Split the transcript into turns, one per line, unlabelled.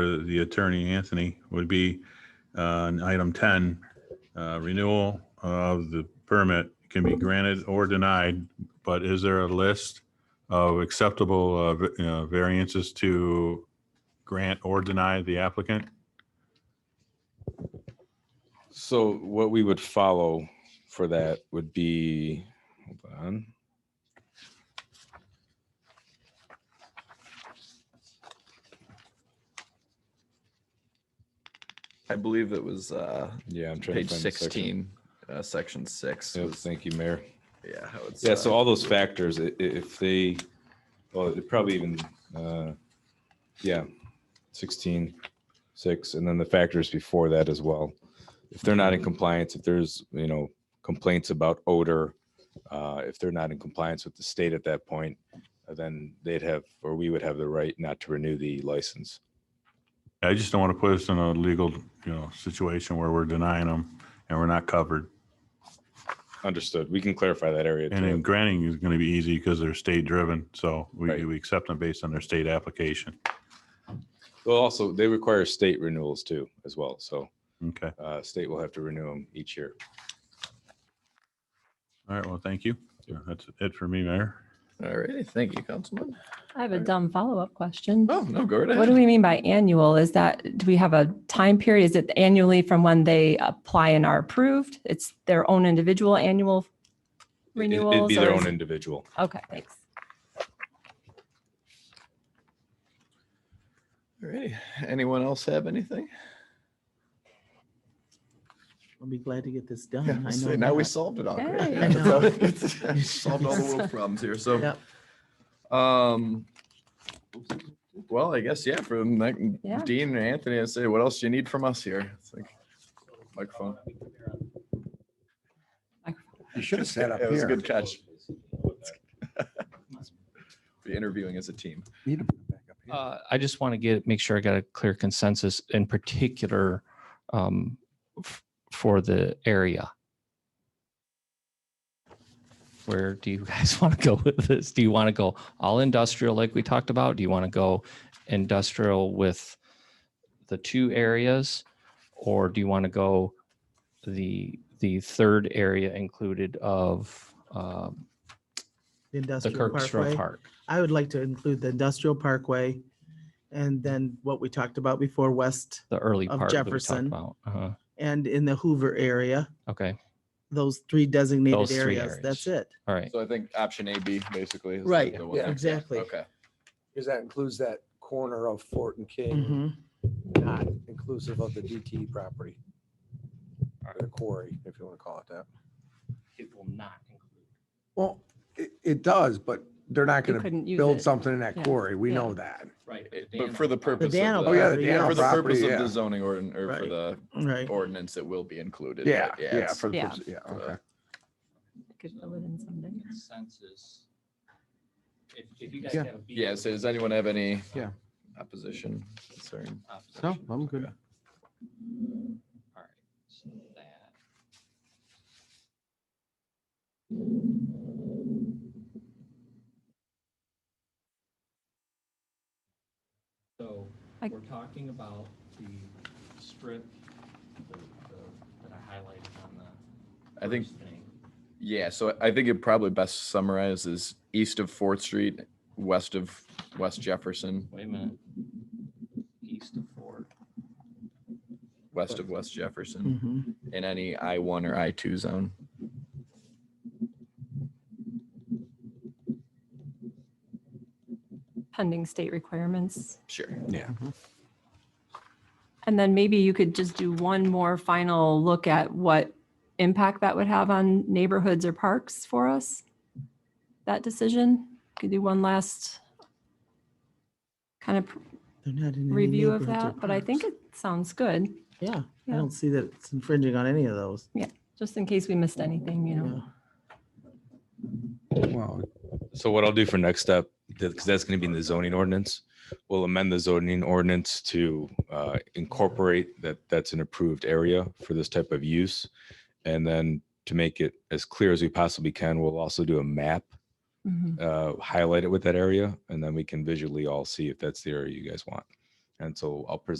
for the attorney, Anthony, would be on item 10, uh, renewal of the permit can be granted or denied, but is there a list of acceptable uh, v- uh, variances to grant or deny the applicant?
So what we would follow for that would be, hold on.
I believe it was uh,
Yeah, I'm trying to
page
find the section.
16, uh, section six.
Yep,
was-
Thank you, Mayor.
yeah, how it's,
Yeah, so
uh,
all those factors, i- i- if they, well, it probably even, uh, yeah, 16, 6, and then the factors before that as well. If they're not in compliance, if there's, you know, complaints about odor, uh, if they're not in compliance with the state at that point, uh, then they'd have, or we would have the right not to renew the license.
I just don't want to put us in a legal, you know, situation where we're denying them and we're not covered.
Understood. We can clarify that area.
And then
too.
granting is going to be easy because they're state driven, so we,
Right.
we accept them based on their state application.
Well, also, they require state renewals too, as well. So
Okay,
uh, state will have to renew them each year.
all right, well, thank you. That's it for me, Mayor.
all righty. Thank you, Councilman.
I have a
Alright.
dumb follow-up question.
Oh, no, go right ahead.
What do we mean by annual? Is that, do we have a time period? Is it annually from when they apply and are approved? It's their own individual annual
It- it-
renewals?
It'd be their
or is-
own individual.
Okay, thanks.
Alrighty. Anyone else have anything?
I'll be glad to get this done.
Yeah,
Oh, I
so
know
now we
that.
solved it all.
Hey,
Greg.
I
know.
We Solved all the world problems here, so,
Yep.
um, well, I guess, yeah, from like
Yeah.
Dean and Anthony, I say, what else do you need from us here? It's like Microphone.
You should have sat up
It was a
here.
good catch. Be interviewing as a team.
Need to put it back up here.
Uh, I just want to get, make sure I got a clear consensus in particular um, f- for the area. Where do you guys want to go with this? Do you want to go all industrial like we talked about? Do you want to go industrial with the two areas? Or do you want to go the, the third area included of um,
The
the
Industrial
Kirkstra
Parkway.
Park?
I would like to include the industrial parkway and then what we talked about before, west
The early
Of
part that we talked
Jefferson.
about. Uh-huh.
and in the Hoover area,
Okay,
those three
Those
designated
three
areas. That's it.
all right.
So I think option A, B, basically. is the-
Right,
the one that-
exactly.
Okay.
Because that includes that corner of Fort and King,
Mhm.
Mm-hmm.
not inclusive of the DT property. Or the quarry, if you want to call it that.
It will not include.
Well, it, it does, but they're not
You
going to
couldn't use
build
it.
something in that
Yeah,
quarry. We
yeah.
know that.
Right.
But for the purpose. of
Daniel
the-
Oh, yeah,
for
the Daniel
the purpose
property,
of
yeah.
the zoning or, or for
Right.
the
Right.
ordinance, it will be included. right?
Yeah, yeah,
it's-
for the
Yeah.
purpose- yeah, okay.
Could fill it in someday.
Consensus. If, if you guys
Yeah.
have a beef
Yeah,
with
so does anyone have any?
Yeah.
Opposition? Sorry.
the opposition,
No, I'm good.
Okay.
all right, so that- So
I-
we're talking about the strip the- the- that I highlighted on the
I think,
first thing.
yeah, so I think it probably best summarizes east of Fourth Street, west of West Jefferson,
Wait a minute. East of Ford.
west of West Hmm. Jefferson,
Mhm.
in any I one or I two zone.
Pending state requirements.
Sure.
And then maybe you could just do one more final look at what impact that would have on neighborhoods or parks for us? That decision? Could do one last kind of
They're not in any
review of
neighborhoods or
that, but I think it
parks.
sounds good,
Yeah, I
Yeah.
don't see that it's infringing on any of those.
just in case we missed anything, you know?
Yeah.
Well,
So what I'll do for next step, because that's going to be in the zoning ordinance, we'll amend the zoning ordinance to uh, incorporate that that's an approved area for this type of use. And then to make it as clear as we possibly can, we'll also do a map,
Mhm.
uh, highlight it with that area, and then we can visually all see if that's the area you guys want. And so I'll present